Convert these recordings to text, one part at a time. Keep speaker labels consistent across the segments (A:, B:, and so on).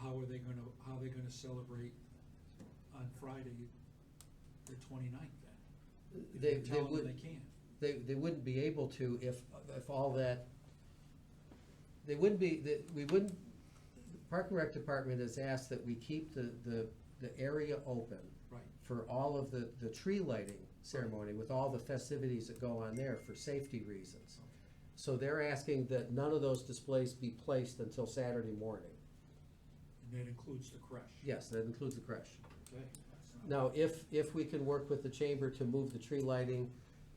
A: how are they gonna, how are they gonna celebrate on Friday, the 29th then? If
B: They,
A: you
B: they
A: tell them
B: would,
A: they can't.
B: they, they wouldn't be able to if, if all that, they wouldn't be, that, we wouldn't, the Park and Rec Department has asked that we keep the, the, the area open
A: Right.
B: for all of the, the tree lighting ceremony with all the festivities that go on there for safety reasons. So they're asking that none of those displays be placed until Saturday morning.
A: And that includes the crush.
B: Yes, that includes the crush.
A: Okay.
B: Now, if, if we can work with the chamber to move the tree lighting,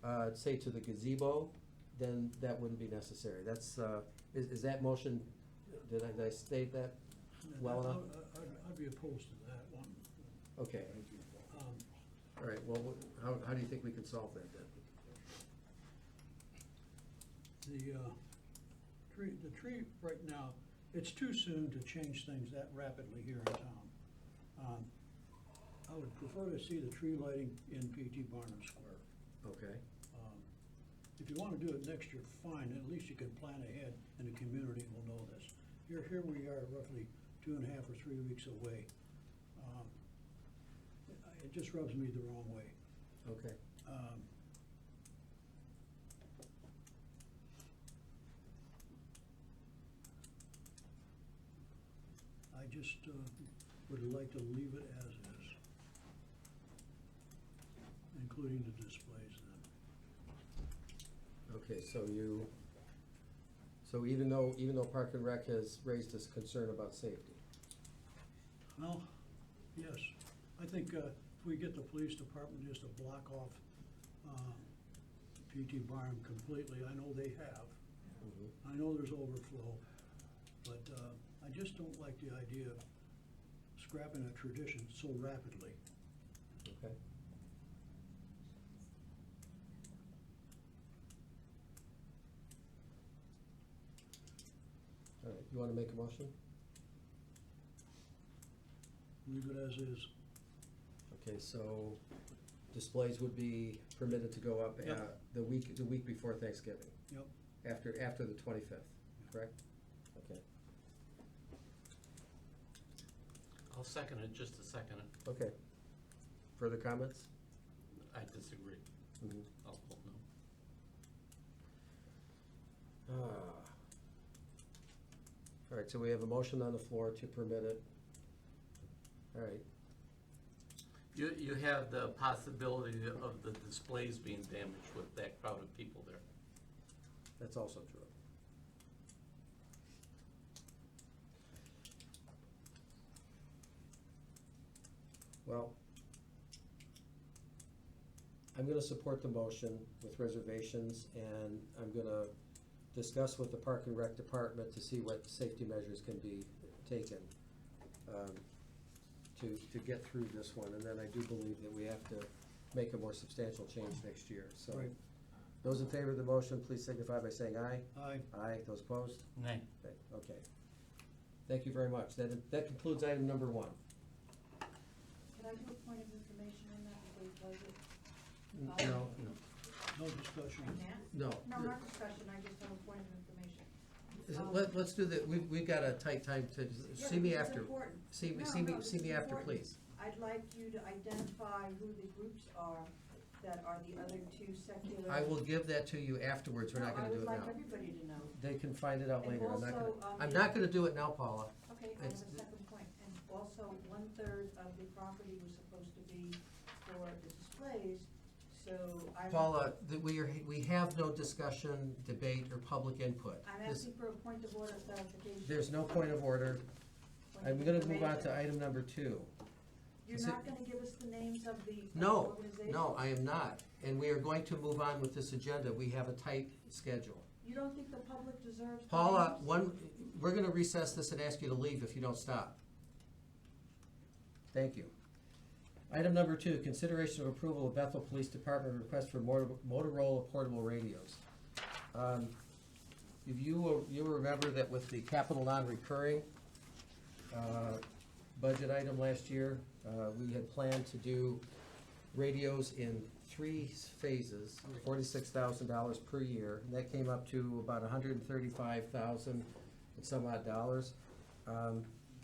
B: uh, say to the gazebo, then that wouldn't be necessary. That's, uh, is, is that motion, did I, did I state that well uh, enough?
C: I- I'd I'd be opposed to that one.
B: Okay,
C: Um,
B: all right, well, wh- how, how do you think we can solve that then?
C: The uh, tree, the tree right now, it's too soon to change things that rapidly here in town. Um, I would prefer to see the tree lighting in P.T. Barnum Square.
B: Okay,
C: Um, If you want to do it next year, fine, at least you can plan ahead and the community will know this. Here, here we are roughly two and a half or three weeks away. Um, it- It just rubs me the wrong way.
B: okay.
C: Um, I just uh, would like to leave it as is, including the displays then.
B: Okay, so you, so even though, even though Park and Rec has raised this concern about safety?
C: Well, yes, I think uh, if we get the police department just to block off uh, PT Barnum completely, I know they have.
B: Mhm.
C: I know there's overflow, but uh, I just don't like the idea of scrapping a tradition so rapidly.
B: Okay. All right, you want to make a motion?
C: Leave it as is.
B: Okay, so displays would be permitted to go up uh,
C: Yep.
B: the week, the week before Thanksgiving,
C: Yep.
B: after, after the 25th, correct? Okay,
D: I'll second it, just a second.
B: okay. Further comments?
D: I disagree.
B: Mhm.
D: I'll vote no.
B: Ah. All right, so we have a motion on the floor to permit it. All right,
D: You, you have the possibility of the displays being damaged with that crowd of people there.
B: That's also true. Well, I'm gonna support the motion with reservations, and I'm gonna discuss with the Park and Rec Department to see what safety measures can be taken um, to, to get through this one, and then I do believe that we have to make a more substantial change next year, so.
C: Right.
B: Those in favor of the motion, please signify by saying aye.
C: Aye.
B: Aye, those opposed?
D: Nay.
B: Okay, Okay. Thank you very much. That, that concludes item number one.
E: Can I do a point of information on that, the budget?
B: No,
C: No discussion.
E: Can't?
B: no.
E: No, not discussion, I just have a point of information.
B: Uh,
E: Um,
B: Let, us do that. We've, we've got a tight time to,
E: yeah,
B: see me
E: because it's
B: after.
E: important.
B: See, me-
E: No,
B: see
E: no,
B: me,
E: this
B: see
E: is
B: me after,
E: important.
B: please.
E: I'd like you to identify who the groups are that are the other two secular.
B: I will give that to you afterwards. We're not
E: No,
B: gonna do it
E: I would like
B: now.
E: everybody to know.
B: They can find it out
E: And
B: later. I'm not
E: also,
B: gonna,
E: um,
B: I'm not gonna do it now, Paula.
E: Okay, I have a
B: It's-
E: second point. And also, one-third of the property was supposed to be for the displays, so I.
B: Paula, that we are, we have no discussion, debate, or public input.
E: I'm
B: This-
E: asking for a point of order clarification.
B: There's no point of order.
E: Point
B: I'm
E: of
B: gonna move on
E: information.
B: to item number two.
E: You're
B: Is
E: not
B: it-
E: gonna give us the names of the of the
B: No,
E: organizations?
B: no, I am not. And we are going to move on with this agenda. We have a tight schedule.
E: You don't think the public deserves? the
B: Paula,
E: names?
B: one, we're gonna recess this and ask you to leave if you don't stop. Thank you. Item number two, consideration of approval of Bethel Police Department request for Motor- Motorola portable radios. Um, If you, will- you will remember that with the capital non-recurring uh, budget item last year, uh, we had planned to do radios in three phases, forty-six thousand dollars per year. And that came up to about $135,000 and some odd dollars. Um,